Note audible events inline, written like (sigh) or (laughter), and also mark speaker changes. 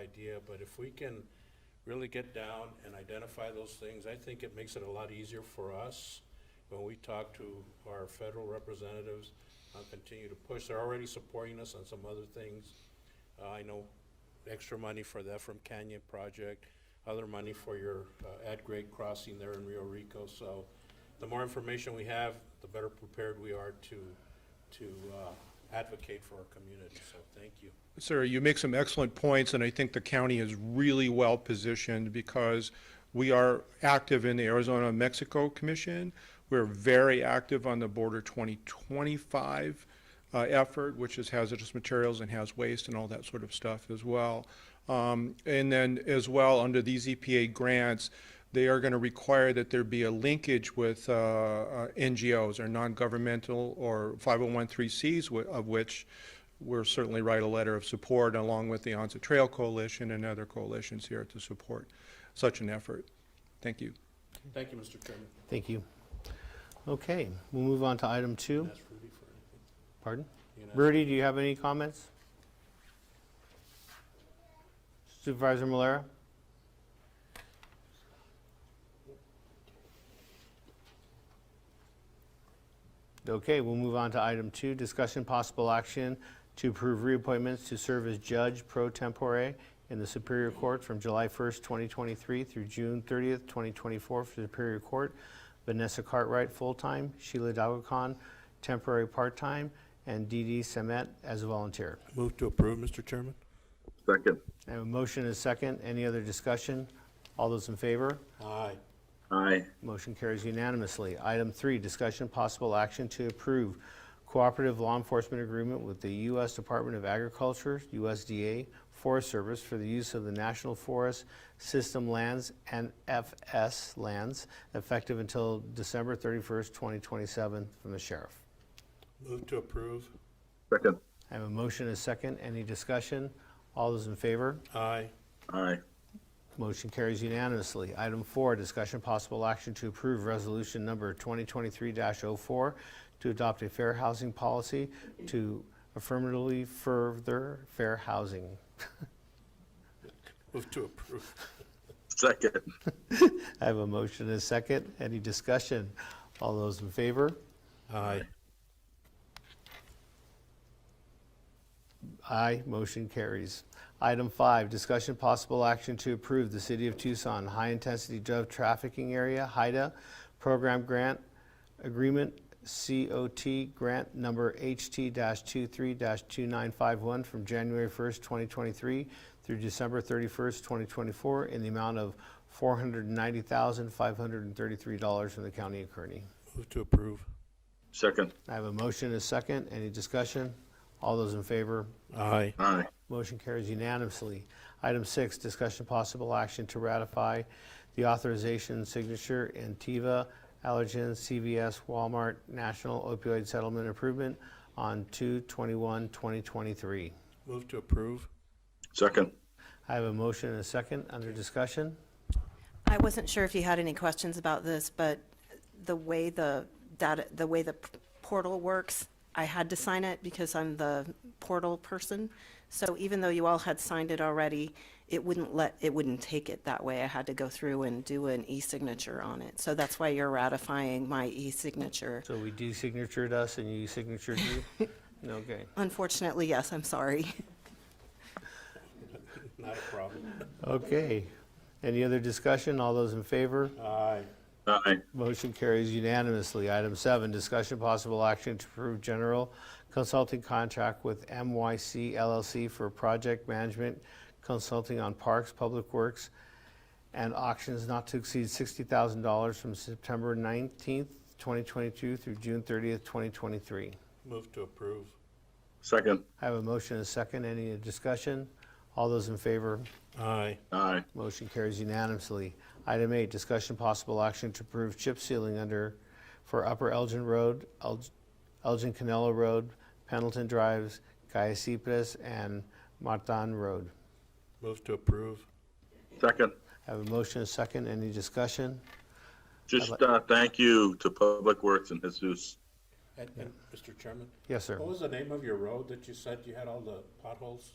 Speaker 1: idea, but if we can really get down and identify those things, I think it makes it a lot easier for us when we talk to our federal representatives, I'll continue to push. They're already supporting us on some other things. Uh, I know extra money for the Ephraim Canyon project, other money for your uh, at-grade crossing there in Rio Rico. So the more information we have, the better prepared we are to, to uh, advocate for our community. So thank you.
Speaker 2: Sir, you make some excellent points, and I think the county is really well-positioned because we are active in the Arizona-Mexico Commission. We're very active on the Border 2025 uh, effort, which is hazardous materials and has waste and all that sort of stuff as well. Um, And then as well, under these EPA grants, they are going to require that there be a linkage with uh, uh, NGOs or non-governmental or 501(c)(3)s, wh- of which we'll certainly write a letter of support along with the Onset Trail Coalition and other coalitions here to support such an effort. Thank you.
Speaker 1: Thank you, Mr. Chairman.
Speaker 3: Thank you. Okay, we'll move on to item two.
Speaker 1: Ask Rudy for anything.
Speaker 3: Pardon?
Speaker 1: You know-
Speaker 3: Rudy, do you have any comments? Supervisor Malera? Okay, we'll move on to item two, discussion possible action to approve reappointments to serve as judge pro tempore in the Superior Court from July 1st, 2023 through June 30th, 2024 for Superior Court. Vanessa Cartwright, full-time, Sheila Dalukan, temporary part-time, and Dee Dee Semet as a volunteer.
Speaker 4: Move to approve, Mr. Chairman?
Speaker 5: Second.
Speaker 3: I have a motion and a second. Any other discussion? All those in favor?
Speaker 1: Aye.
Speaker 5: Aye.
Speaker 3: Motion carries unanimously. Item three, discussion possible action to approve cooperative law enforcement agreement with the U.S. Department of Agriculture, USDA Forest Service for the use of the National Forest System lands and FS lands effective until December 31st, 2027 from the sheriff.
Speaker 1: Move to approve.
Speaker 5: Second.
Speaker 3: I have a motion and a second. Any discussion? All those in favor?
Speaker 1: Aye.
Speaker 5: Aye.
Speaker 3: Motion carries unanimously. Item four, discussion possible action to approve resolution number 2023-04 to adopt a fair housing policy to affirmatively further fair housing.
Speaker 1: Move to approve.
Speaker 5: Second.
Speaker 3: I have a motion and a second. Any discussion? All those in favor?
Speaker 1: Aye.
Speaker 3: Aye, motion carries. Item five, discussion possible action to approve the City of Tucson High Intensity Drug Trafficking Area, HIDA, Program Grant Agreement, COT Grant Number HT-23-2951 from January 1st, 2023 through December 31st, 2024, in the amount of $490,533 from the County of Kearney.
Speaker 1: Move to approve.
Speaker 5: Second.
Speaker 3: I have a motion and a second. Any discussion? All those in favor?
Speaker 1: Aye.
Speaker 5: Aye.
Speaker 3: Motion carries unanimously. Item six, discussion possible action to ratify the authorization signature Antiva, Allergan, CVS, Walmart, National Opioid Settlement Improvement on 2/21/2023.
Speaker 1: Move to approve.
Speaker 5: Second.
Speaker 3: I have a motion and a second under discussion.
Speaker 6: I wasn't sure if you had any questions about this, but the way the data, the way the portal works, I had to sign it because I'm the portal person. So even though you all had signed it already, it wouldn't let, it wouldn't take it that way. I had to go through and do an e-signature on it. So that's why you're ratifying my e-signature.
Speaker 3: So we de-signatured us and you signatured you? Okay.
Speaker 6: Unfortunately, yes, I'm sorry. (laughs)
Speaker 1: Not a problem.
Speaker 3: Okay. Any other discussion? All those in favor?
Speaker 1: Aye.
Speaker 5: Aye.
Speaker 3: Motion carries unanimously. Item seven, discussion possible action to approve general consulting contract with MYC LLC for project management consulting on parks, public works, and auctions not to exceed $60,000 from September 19th, 2022 through June 30th, 2023.
Speaker 1: Move to approve.
Speaker 5: Second.
Speaker 3: I have a motion and a second. Any discussion? All those in favor?
Speaker 1: Aye.
Speaker 5: Aye.
Speaker 3: Motion carries unanimously. Item eight, discussion possible action to approve chip sealing under, for Upper Elgin Road, El- Elgin Canelo Road, Pendleton Drives, Caiacipas, and Martin Road.
Speaker 1: Move to approve.
Speaker 5: Second.
Speaker 3: Have a motion, and a second, any discussion?
Speaker 5: Just, uh, thank you to Public Works and Jesus.
Speaker 1: And, and, Mr. Chairman,
Speaker 3: Yes, sir.
Speaker 1: what was the name of your road that you said you had all the potholes?